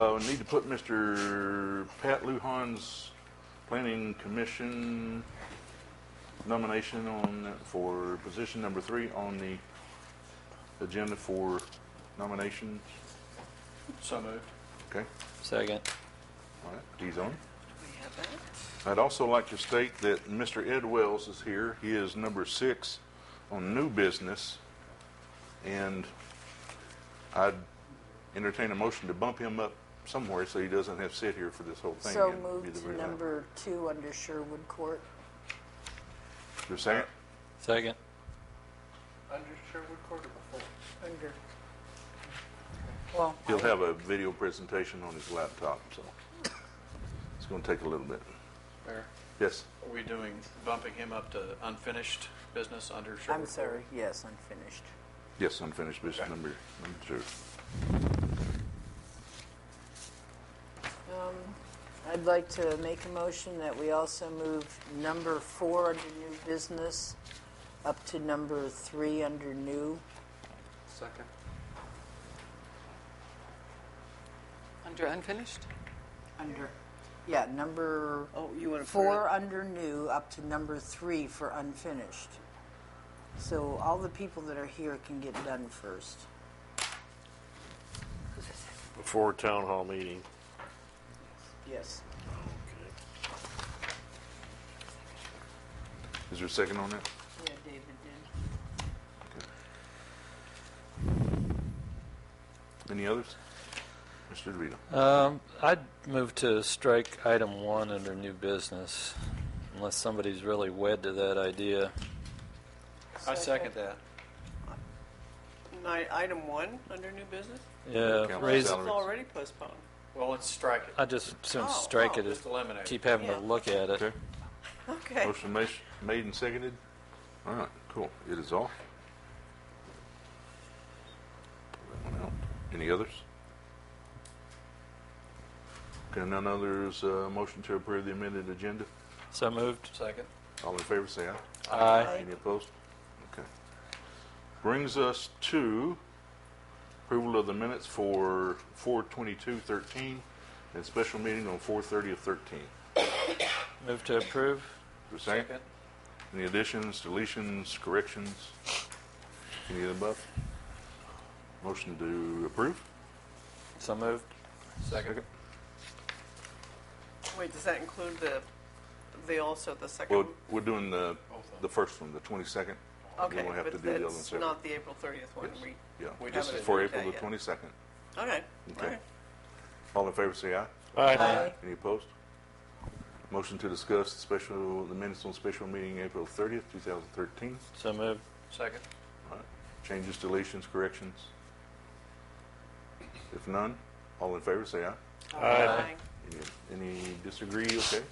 Uh, we need to put Mr. Pat Lujan's Planning Commission nomination on, for position number three on the agenda for nominations. So moved. Okay, Second. all right, D's on. I'd also like to state that Mr. Ed Wells is here. He is number six on new business. And I'd entertain a motion to bump him up somewhere so he doesn't have to sit here for this whole thing. So It'd be the moved very to last. number two under Sherwood Court. Is there a second? Second. Under Sherwood Court or before? Under. Well, He'll have a video presentation on his laptop, so it's going to take a little bit. Mayor, Yes, are we doing, bumping him up to unfinished business under Sherwood? I'm Court? sorry, yes, unfinished. yes, unfinished business number, number two. Um, I'd like to make a motion that we also move number four under new business up to number three under new. Second. Under unfinished? Under. Yeah, number Oh, you want to four under new up to number three for unfinished. So all the people that are here can get done first. Before town hall meeting. Yes. Is there a second on that? Yeah, David did. Any others? Mr. DeVito? Um, I'd move to strike item one under new business, unless somebody's really wed to that idea. I second that. Item one, under new business? Yeah, Council raise, It's Salaries. already postponed. Well, let's strike it. I just soon Oh, strike oh, it, Just eliminate it. keep having to Yeah. look at it. Okay. Okay. Motion ma- made and seconded. All right, cool. It is off. Pull that one out. Any others? Okay, none others, uh, motion to approve the amended agenda. So moved? Second. All in favor, say aye. Aye. Any opposed? Okay. Brings us to approval of the minutes for 4:22:13 and special meeting on 4:30 of 13. Move to approve? Is there a Second. Any additions, deletions, corrections? Any of the above? Motion to approve? So moved? Second. Wait, does that include the, the also the second? Well, we're doing the, the first one, the 22nd. Okay, won't have to but do the other one that's separate. not the April 30th one. Yes. We- Yeah, We this haven't is for approved April the that 22nd. Okay, all Okay. right. All in favor, say aye. Aye. Any opposed? Motion to discuss the special, the minutes on special meeting April 30th, 2013. So moved? Second. All right. Changes, deletions, corrections? If none, all in favor, say aye. Aye. Any any disagree, okay?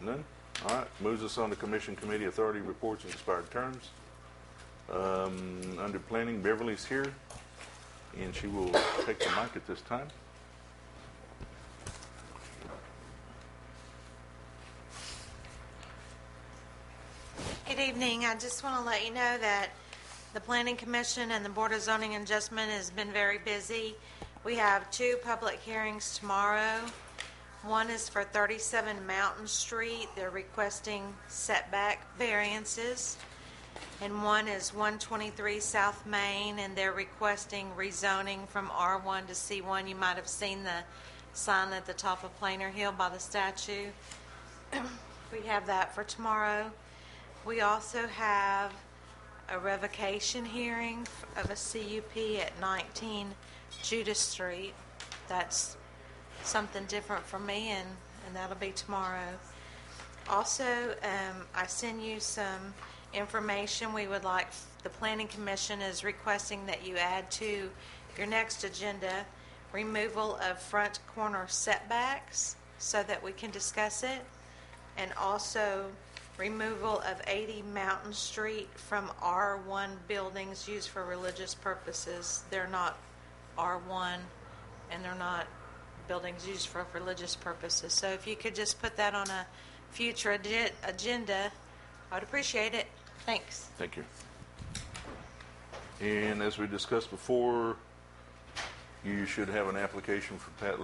None? All right, moves us on to commission committee authority reports and expired terms. Um, Under planning, Beverly's here, and she will take the mic at this time. Good evening. I just want to let you know that the Planning Commission and the Board of Zoning Adjustment has been very busy. We have two public hearings tomorrow. One is for 37 Mountain Street. They're requesting setback variances. And one is 123 South Main, and they're requesting rezoning from R1 to C1. You might have seen the sign at the top of Plainer Hill by the statue. We have that for tomorrow. We also have a revocation hearing of a CUP at 19 Judas Street. That's something different for me, and, and that'll be tomorrow. Also, um, I send you some information we would like, the Planning Commission is requesting that you add to your next agenda removal of front corner setbacks so that we can discuss it and also removal of 80 Mountain Street from R1 buildings used for religious purposes. They're not R1, and they're not buildings used for religious purposes. So if you could just put that on a future ag- agenda, I'd appreciate it. Thanks. Thank you. And as we discussed before, you should have an application for Pat